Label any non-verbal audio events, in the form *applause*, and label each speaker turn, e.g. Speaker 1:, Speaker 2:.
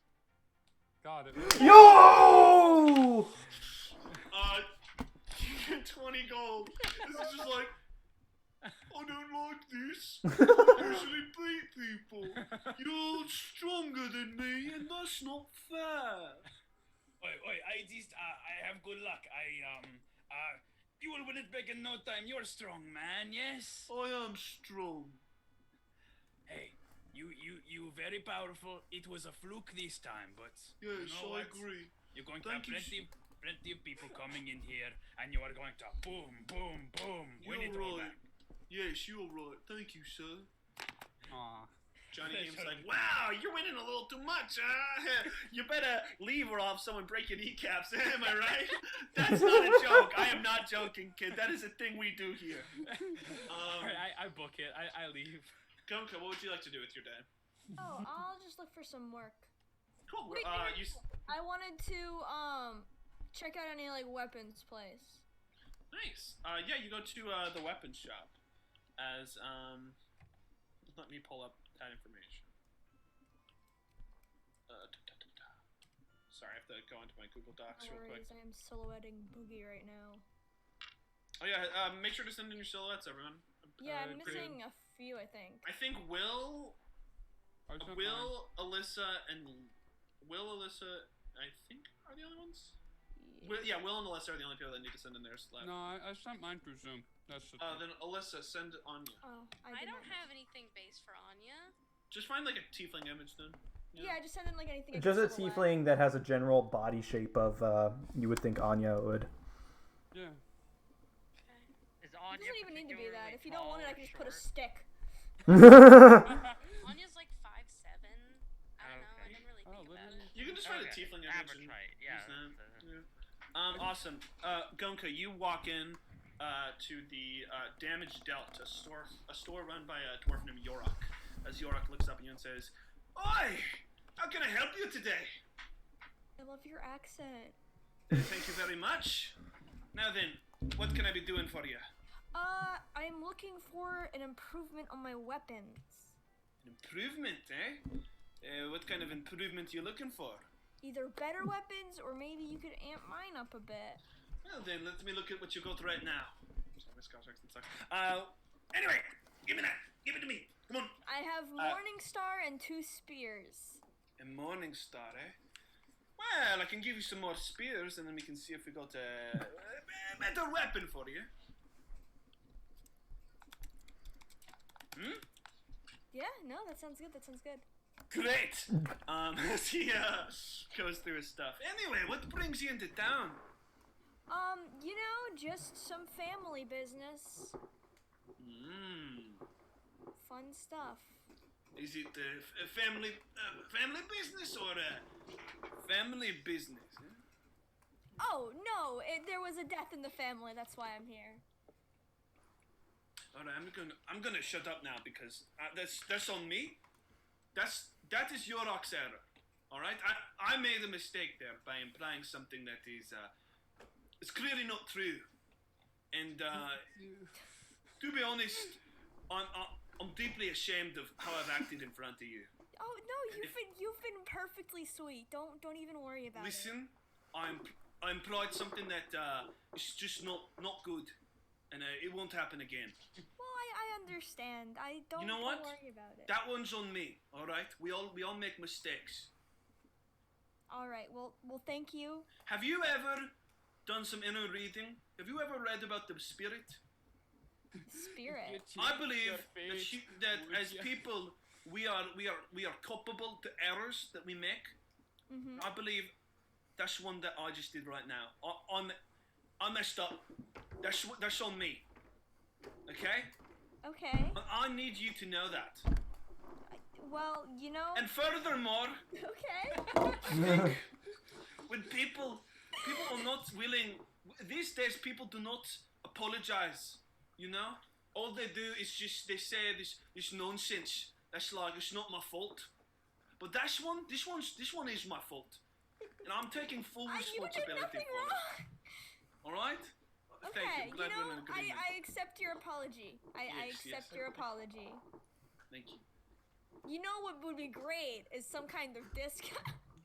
Speaker 1: God, it
Speaker 2: Yo!
Speaker 3: Uh, *laughs* 20 gold. This is just like, I don't like this. I usually beat people. You're stronger than me, and that's not fair.
Speaker 4: Oi, oi, I just, uh, I have good luck. I, um, uh, you will win it back in no time. You're strong, man, yes?
Speaker 3: I am strong.
Speaker 4: Hey, you, you, you very powerful. It was a fluke this time, but.
Speaker 3: Yes,
Speaker 4: you know
Speaker 3: I
Speaker 4: what?
Speaker 3: agree.
Speaker 4: You're going
Speaker 3: Thank
Speaker 4: to
Speaker 3: you,
Speaker 4: have plenty, plenty of people coming in here, and you are going to boom, boom, boom, win it
Speaker 3: You're
Speaker 4: all
Speaker 3: right.
Speaker 4: back.
Speaker 3: Yes, you're right. Thank you, sir.
Speaker 1: Aw.
Speaker 5: Johnny
Speaker 4: That's
Speaker 5: Game's
Speaker 4: right.
Speaker 5: like, wow, you're winning a little too much. Uh, *laughs* you better leave or I'll have someone break your kneecaps. *laughs* Am I right? That's not a joke. I am not joking, kid. That is a thing we do here.
Speaker 4: *laughs* All
Speaker 5: Um,
Speaker 4: right, I, I book it. I, I leave.
Speaker 5: Gunka, what would you like to do with your day?
Speaker 6: Oh, I'll just look for some work.
Speaker 5: Cool.
Speaker 6: Wait,
Speaker 5: Uh,
Speaker 6: wait,
Speaker 5: you, s-
Speaker 6: I wanted to um check out any like weapons place.
Speaker 5: nice. Uh, yeah, you go to uh, the weapons shop. As um, let me pull up that information. Uh, da, da, da, da. Sorry, I have to go into my Google Docs
Speaker 6: No
Speaker 5: real quick.
Speaker 6: worries, I am silhouetting Boogie right now.
Speaker 5: Oh yeah, uh, make sure to send in your silhouettes, everyone.
Speaker 6: Yeah,
Speaker 5: Uh,
Speaker 6: I'm
Speaker 5: pretty-
Speaker 6: missing a few, I think.
Speaker 5: I think Will,
Speaker 1: I took mine.
Speaker 5: Will, Alyssa, and Will, Alyssa, I think are the only ones. Will, yeah, Will and Alyssa are the only people that need to send in their slap.
Speaker 1: No, I, I sent mine through Zoom. That's the
Speaker 5: Uh,
Speaker 1: thing.
Speaker 5: then Alyssa, send on you.
Speaker 6: Oh, I,
Speaker 7: I
Speaker 6: did
Speaker 7: don't
Speaker 6: not
Speaker 7: have anything based for Anya.
Speaker 5: Just find like a tiefling image then.
Speaker 6: Yeah, I just sent in like anything. I
Speaker 2: Just a
Speaker 6: could silhouette.
Speaker 2: tiefling that has a general body shape of, uh, you would think Anya would.
Speaker 1: Yeah.
Speaker 8: Is
Speaker 6: It
Speaker 8: Anya
Speaker 6: doesn't even need to be that.
Speaker 8: particularly
Speaker 6: If you don't want it,
Speaker 8: tall
Speaker 6: I
Speaker 8: or
Speaker 6: can just put a
Speaker 8: short?
Speaker 6: stick.
Speaker 7: Anya's like five seven. I don't know. I
Speaker 8: Okay.
Speaker 7: didn't really
Speaker 1: Oh,
Speaker 7: think about
Speaker 1: literally.
Speaker 7: it.
Speaker 5: You can just find a
Speaker 8: Okay,
Speaker 5: tiefling image. and
Speaker 8: Abertrite, yeah,
Speaker 5: use that.
Speaker 8: that's
Speaker 5: Yeah. Um, awesome. Uh, Gonka, you walk in uh, to the uh, Damage Dealt, a store, a store run by a dwarf named Yorok. As Yorok looks up at you and says, "Oi, how can I help you today?"
Speaker 6: I love your accent.
Speaker 5: Thank you very much. Now then, what can I be doing for you?
Speaker 6: Uh, I'm looking for an improvement on my weapons.
Speaker 5: An improvement, eh? Uh, what kind of improvement you looking for?
Speaker 6: Either better weapons, or maybe you could amp mine up a bit.
Speaker 5: Well then, let me look at what you got right now. Sorry, my Scotch accent sucks. Uh, anyway, give me that. Give it to me. Come on.
Speaker 6: I have
Speaker 5: Uh,
Speaker 6: Morning Star and two spears.
Speaker 5: A morning star, eh? Well, I can give you some more spears, and then we can see if we got a, a better weapon for you. Hmm.
Speaker 6: Yeah, no, that sounds good. That sounds good.
Speaker 5: Great. Um, *laughs* as he uh, goes through his stuff. Anyway, what brings you into town?
Speaker 6: Um, you know, just some family business,
Speaker 5: Mm.
Speaker 6: fun stuff.
Speaker 5: Is it uh, f- a family uh, family business or a family business? eh?
Speaker 6: Oh no, it, there was a death in the family. That's why I'm here.
Speaker 5: All right, I'm gonna I'm gonna shut up now because uh, that's that's on me. That's that is your ox error. All right, I I made a mistake there by implying something that is uh, it's clearly not true. And uh, to be honest, I'm I'm- I'm deeply ashamed of how I've acted in front of you.
Speaker 6: Oh no, you've been you've been perfectly sweet. Don't don't even worry about it.
Speaker 5: Listen, I'm I implied something that uh, is just not not good, and uh, it won't happen again.
Speaker 6: Well, I, I understand. I don't,
Speaker 5: know
Speaker 6: don't
Speaker 5: what?
Speaker 6: worry about it.
Speaker 5: That one's on me. All right, we all we all make mistakes.
Speaker 6: All right. Well, well, thank you.
Speaker 5: Have you ever done some inner reading? Have you ever read about the spirit?
Speaker 6: Spirit.
Speaker 5: I believe that, she, that as people we are we are we are culpable to errors that we make.
Speaker 6: hmm
Speaker 5: I believe that's one that I just did right now. I, I'm I messed up. That's wh- that's on me. Okay,
Speaker 6: Okay.
Speaker 5: And I need you to know that.
Speaker 6: Well, you know.
Speaker 5: And furthermore,
Speaker 6: *laughs*
Speaker 5: *laughs*
Speaker 6: Okay.
Speaker 5: when people people are not willing these days, people do not apologize. You know, all they do is just they say this this nonsense. That's like it's not my fault. But that's one. This one's this one is my fault, and I'm taking full
Speaker 6: I, you did
Speaker 5: responsibility
Speaker 6: nothing
Speaker 5: for it.
Speaker 6: wrong.
Speaker 5: All right. Thank
Speaker 6: Okay.
Speaker 5: you.
Speaker 6: You
Speaker 5: Glad
Speaker 6: know,
Speaker 5: we're in
Speaker 6: I,
Speaker 5: agreement.
Speaker 6: I accept your apology. I, I
Speaker 5: Yes, yes.
Speaker 6: accept your apology.
Speaker 5: Thank you.
Speaker 6: You know what would be great is some kind of discount.